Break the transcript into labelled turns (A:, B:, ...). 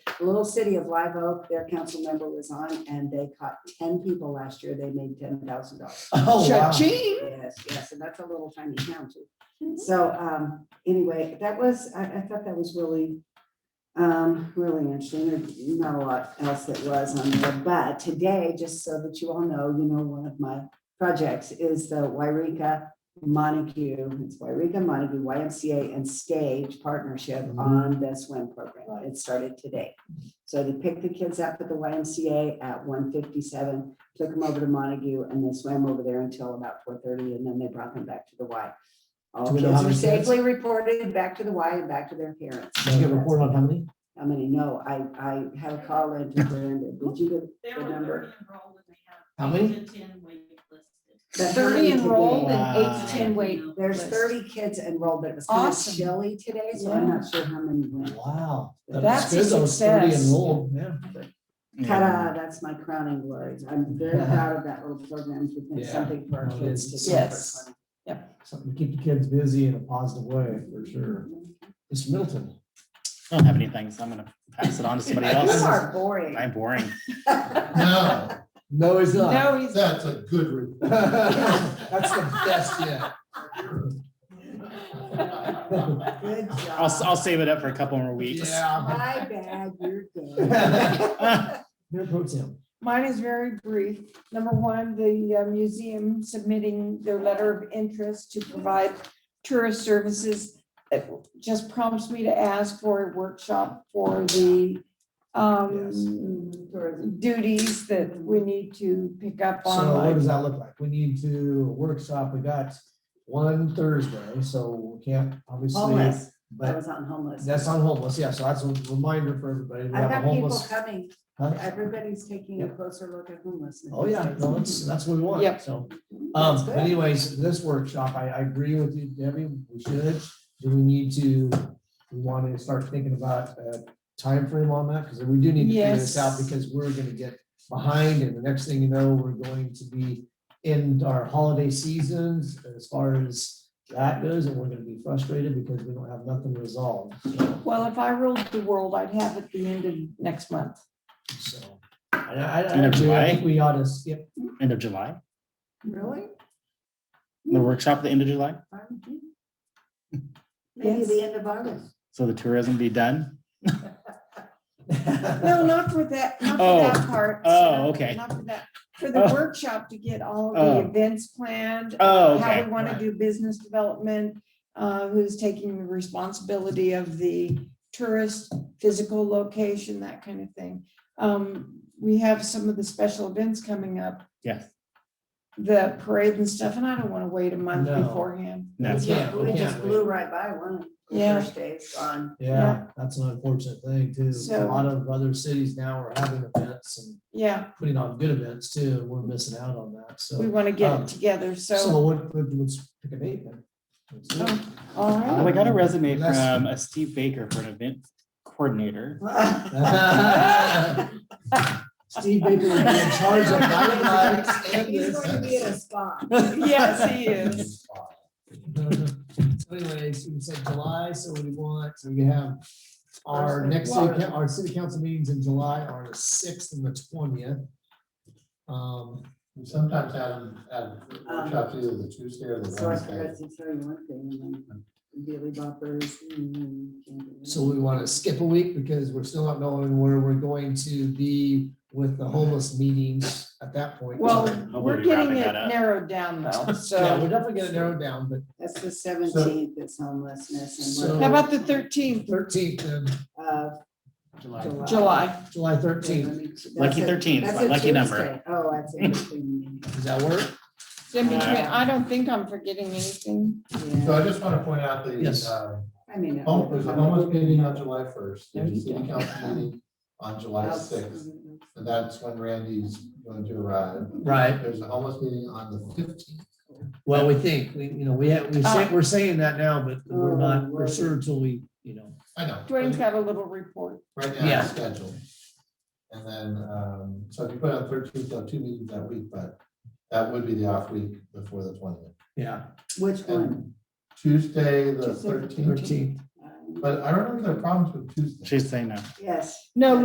A: The Little city of Live Oak, their council member was on and they caught ten people last year. They made ten thousand dollars.
B: Oh, wow.
C: Cha-ching.
A: Yes, yes, and that's a little tiny town too. So um, anyway, that was, I, I thought that was really, um, really interesting. There's not a lot else that was on there. But today, just so that you all know, you know, one of my projects is the Wairika Montague, it's Wairika Montague YMCA and Stage Partnership on the swim program. It started today. So they picked the kids up at the YMCA at one fifty-seven took them over to Montague and they swam over there until about four thirty and then they brought them back to the Y.
B: Do
A: All
B: we know
A: kids
B: how
A: are
B: many kids?
A: safely reported back to the Y and back to their parents.
B: Did you get a report on how many?
A: How many? No, I, I had a call in to Brenda. Did you? get-
D: There
A: The
D: were
A: number.
D: thirty enrolled and they have.
B: How many?
D: eight to Ten waitlisted.
A: that
C: Thirty enrolled and eight
B: Wow.
C: to ten wait.
A: There's
C: list.
A: thirty kids enrolled, but it was kind of
C: Awesome.
A: chilly today, so I'm not sure how many went.
B: Wow. that
C: That's
B: was
C: a
B: good. Those 30
C: success.
B: enrolled, yeah.
A: Ta-da, that's my crowning glory. I'm very proud of that little program to think
B: Yeah.
A: something for our
B: Well,
A: kids to. do
B: it's-
A: for
C: Yes.
A: fun.
B: Something to keep the kids busy in a positive way, for sure. Mr. Middleton.
E: I don't have anything, so I'm gonna pass it on to somebody
A: You
E: else.
A: are boring.
E: I'm boring.
F: No,
B: No, he's
C: No, he's,
F: that's a good report.
B: That's the best yet.
A: Good job.
E: I'll, s- I'll save it up for a couple more weeks.
F: Yeah.
A: My bad, you're good.
B: Mayor Pro Tem.
C: mine is very brief. Number one, the uh, museum submitting their letter of interest to provide tourist services. It just prompts me to ask for a workshop for the um,
A: Tourism.
C: duties that we need to pick up
B: So what
C: on.
B: does that look like? We need to workshop, we got one Thursday, so we can't obviously,
A: Homeless, I
B: but
A: was on homeless.
B: that's on homeless, yeah, so that's a reminder for everybody. We
A: I've
B: have a
A: got people
B: homeless.
A: coming,
B: Huh?
A: everybody's taking a closer look at homelessness.
B: Oh, yeah, no, that's, that's what we want,
C: Yep.
B: so. Um,
A: That's
B: but
A: good.
B: anyways, this workshop, I, I agree with you, Debbie, we should, do we need to, we want to start thinking about a timeframe on that, because we do need to figure this out,
C: Yes.
B: because we're gonna get behind, and the next thing you know, we're going to be in our holiday seasons, as far as that goes, and we're gonna be frustrated because we don't have nothing resolved,
C: Well, if I ruled the world, I'd have it the end of next month.
B: so. And I, I,
E: End
B: I
E: of
B: agree, I think
E: July?
B: we ought to skip,
E: End of July,
A: Really?
E: the workshop, at the end of July,
A: Maybe
C: Yes.
A: the end of August.
E: so the tourism be done.
C: No, not for that, not for
E: Oh.
C: that part.
E: Oh,
C: Sam,
E: okay.
C: Not for that, for the
E: Oh.
C: workshop to get all the
E: Oh.
C: events planned,
E: Oh,
C: how
E: okay.
C: we want to do business development, uh, who's taking the responsibility of the tourist, physical location, that kind of thing. Um, we have some of the special events coming up,
E: Yes,
C: the parade and stuff, and I don't want to wait a month
B: No.
C: beforehand.
A: We
E: that's,
B: Yeah,
A: just-
B: we
A: We just
B: can't
A: blew right by one.
C: Yeah.
A: First day's gone.
B: Yeah, that's an unfortunate thing too. A
C: So-
B: lot of other cities now are having events and
C: Yeah,
B: putting on good events too. and We're missing out on that.
C: we
B: So,
C: want to get
B: Um,
C: it together, so,
B: so what, what- let's pick a date then. Let's do it.
C: all right.
E: Well, I got a resume
B: Less-
E: from a Steve Baker for an event coordinator.
A: Oh.
B: Steve Baker will be in charge of that.
A: He's going to be in a spa.
C: Yes, he is.
B: So Anyways, you said July, so what do you want? So we have our next, city coun- our city council meetings in July are the sixth and the twentieth. Um,
F: Sometimes Adam, Adam, workshops either the Tuesday or the
A: um, So I
F: Wednesday.
A: forgot to tell you one thing, um, and then Billy Boppers. mm, can't do that.
B: So we want to skip a week because we're still not knowing where we're going to be with the homeless meetings at that point.
C: Well,
E: I'll
C: we're
E: be
C: getting
E: wrapping
C: it
E: that up.
C: narrowed down though,
B: Yeah, we're
C: so.
B: definitely gonna narrow it down, but
A: That's the seventeenth, it's homelessness and
B: So-
C: How about the thirteenth,
B: thirteenth of
A: what, uh,
E: July.
A: July.
C: July?
A: Okay,
B: July
A: let
B: thirteenth,
A: me- that's
E: Lucky
A: a-
E: 13,
A: that's
E: my
A: a
E: lucky number.
A: Tuesday. Oh, that's in between.
B: does that work?
C: In between, I don't think I'm forgetting anything.
A: meetings.
F: So
A: Yeah,
F: I just want to point out the,
B: Yes.
F: uh,
A: I mean. it-
F: home, there's a homeless meeting on July first,
C: There
F: there's a
C: you
F: city
C: go.
F: council meeting on July sixth, and that's when Randy's going to arrive.
B: Right.
F: There's a homeless meeting on the fifteenth.
B: Well, we think, we, you know, we, have-
C: Uh,
B: we say, we're saying that now, but we're not, we're sure until we, you know.
F: I know.
C: Dwayne's got a little report.
F: Right now,
B: Yeah.
F: it's scheduled. And then, um, so if you put on thirteenth, there are two meetings that week, but that would be the off week before the twentieth.
B: Yeah,
A: Which one?
F: And Tuesday, the
C: Tuesday, the
F: thirteenth,
B: thirteenth.
A: Uh,
F: but I don't know if there are problems with Tuesday.
E: She's saying no.
A: Yes.
C: No,